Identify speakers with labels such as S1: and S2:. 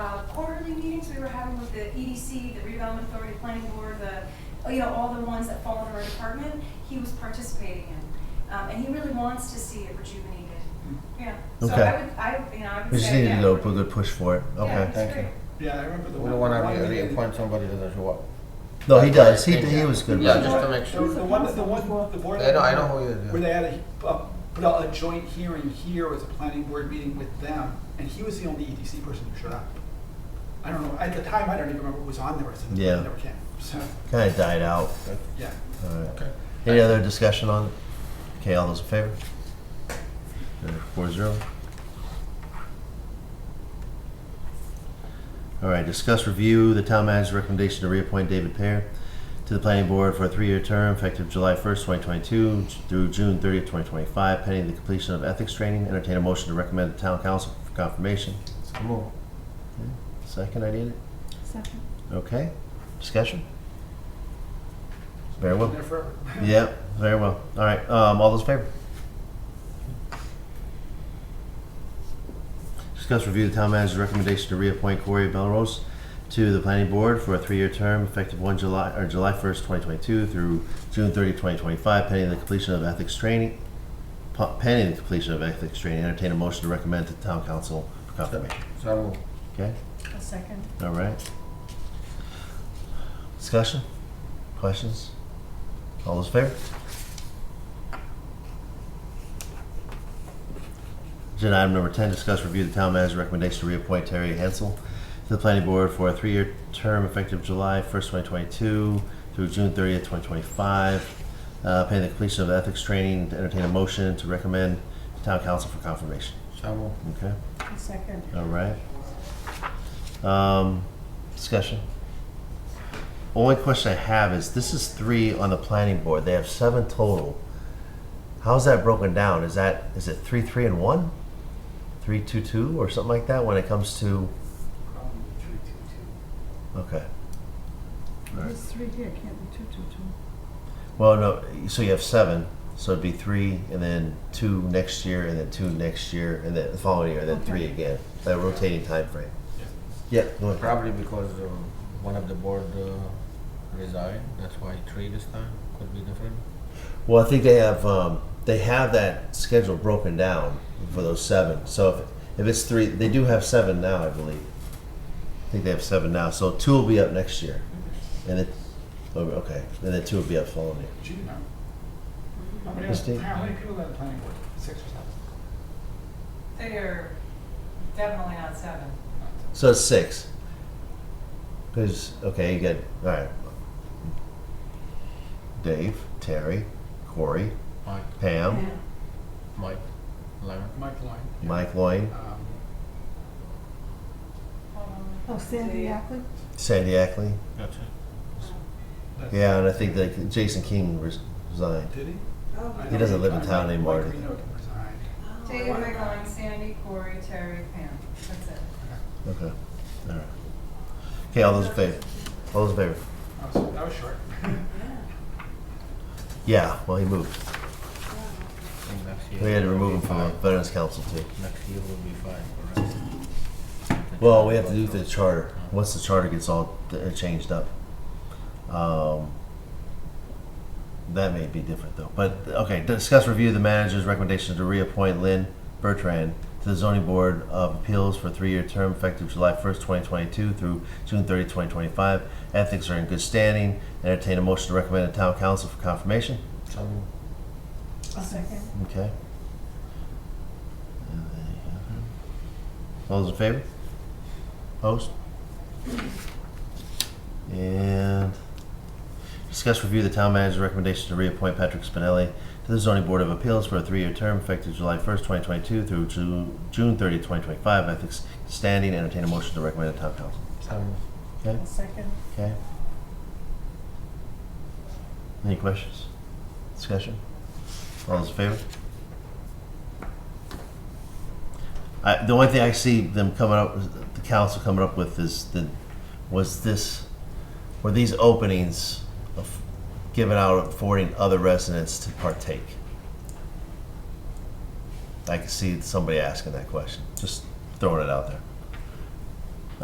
S1: uh, the EDC, the redevelopment authority, planning board, the, you know, all the ones that fall under our department, he was participating in. Um, and he really wants to see it rejuvenated, yeah. So I
S2: Okay.
S1: would, I, you know, I
S2: We
S1: would
S2: just
S1: say,
S2: needed
S1: yeah.
S2: to know, put the push for it.
S1: Yeah,
S2: Okay.
S1: it's
S3: Thank
S1: great.
S4: Yeah, I remember the
S3: We
S4: one.
S3: don't wanna
S4: one
S3: re-
S4: meeting-
S3: reappoint somebody that doesn't show up.
S2: No, he does. He,
S3: Yeah.
S2: he was good.
S3: Yeah,
S2: about
S3: just
S2: it.
S3: to make
S4: The
S3: sure.
S4: the one, the one, the board.
S3: I know, I know who you
S4: Where
S3: is.
S4: they
S3: yeah.
S4: had a, a, put out a joint hearing here was a planning board meeting with them, and he was the only EDC person who showed up. I don't know, at the time, I don't even remember who was on there, or something.
S2: Yeah.
S4: Never came, so,
S2: Kind of died out.
S4: yeah.
S2: All right.
S3: Okay.
S2: Any other discussion on it? Okay, all those in favor? Okay, Four zero. All right, discuss review the town manager's recommendation to reappoint David Pear to the planning board for a three-year term effective July first, twenty twenty-two through June thirtieth, twenty twenty-five, pending the completion of ethics training. Entertain a motion to recommend the town council for confirmation.
S3: So move.
S2: Second, I need it.
S5: Second.
S2: Okay, discussion? Very
S4: Been
S2: well.
S4: there forever.
S2: Yep, very well. All right, um, all those in favor? Discuss review the town manager's recommendation to reappoint Corey Belrose to the planning board for a three-year term effective one July, or July first, twenty twenty-two through June 30, 2025, pending the completion of ethics training, pu- pending the completion of ethics training. Entertain a motion to recommend to town council for confirmation.
S3: So move.
S2: Okay,
S5: A second.
S2: all right. Discussion? Questions? All those in favor? Agenda item number 10, discuss review the town manager's recommendation to reappoint Terry Hansel to the planning board for a three-year term effective July 1st, 2022 through June 30th, 2025. Uh, Pending the completion of ethics training, to entertain a motion to recommend to town council for confirmation.
S3: So move.
S2: Okay,
S5: A second.
S2: all right. Um, Discussion. Only question I have is, this is three on the planning board, they have seven total. How's that broken down? Is that, is it three, three, and one? Three, two, two, or something like that when it comes to, okay. All right.
S5: There's three here, can't be two, two, two.
S2: Well, no, so you have seven, so it'd be three, and then two next year, and then two next year, and then the following year, and then three
S5: Okay.
S2: again. That rotating time frame. Yeah, go ahead.
S3: Probably because uh, one of the board uh, resigned, that's why three this time could be different.
S2: Well, I think they have um, they have that schedule broken down for those seven. So if, if it's three, they do have seven now, I believe. I think they have seven now. So two will be up next year, and then oh, okay, and then two will be up following year.
S4: Do you know? How many,
S2: Christine?
S4: how many people are on the planning board? Six or
S6: They are definitely not seven.
S4: seven?
S2: So it's six. Because okay, you get all right. Dave, Terry, Corey,
S3: Mike,
S2: Pam,
S3: Mike, Larry.
S4: Mike Lloyd.
S2: Mike Loin,
S4: Um,
S5: Oh, Sandy Ackley?
S2: Sandy Ackley.
S3: That's it.
S4: that's-
S2: Yeah, and I think that Jason King res- resigned.
S4: Did he? I
S2: He doesn't
S4: know
S2: live in
S4: resigned.
S2: town anymore.
S4: Mike Reno resigned.
S6: David McGowan, Sandy, Corey, Terry, Pam. That's it.
S2: Okay. All right. Okay, all those in favor? All those in favor?
S4: I was, that was short.
S2: Yeah, well, he moved.
S3: I think next year
S2: We had to
S3: will
S2: remove him
S3: be
S2: from the
S3: five.
S2: Veterans Council too.
S3: Next year will be five, correct?
S2: Well, we have to do the charter. Once the charter gets all uh, changed up. Um, That may be different though. But, okay, discuss review the manager's recommendation to reappoint Lynn Bertrand to the zoning board of appeals for a three-year term effective July first, twenty twenty-two through June 30, 2025. Ethics are in good standing. Entertain a motion to recommend to town council for confirmation.
S3: So move.
S5: A second.
S2: Okay. And there you have it. All those in favor? Post. And discuss review the town manager's recommendation to reappoint Patrick Spinelli to the zoning board of appeals for a three-year term effective July first, twenty twenty-two through Ju- June 30, 2025. Ethics standing, entertain a motion to recommend to town council.
S3: So move.
S2: Okay,
S5: A second.
S2: okay. Any questions? Discussion? All those in favor? I, the only thing I see them coming up, the council coming up with is the, was this, were these openings of given out affording other residents to partake? I can see somebody asking that question, just throwing it out there.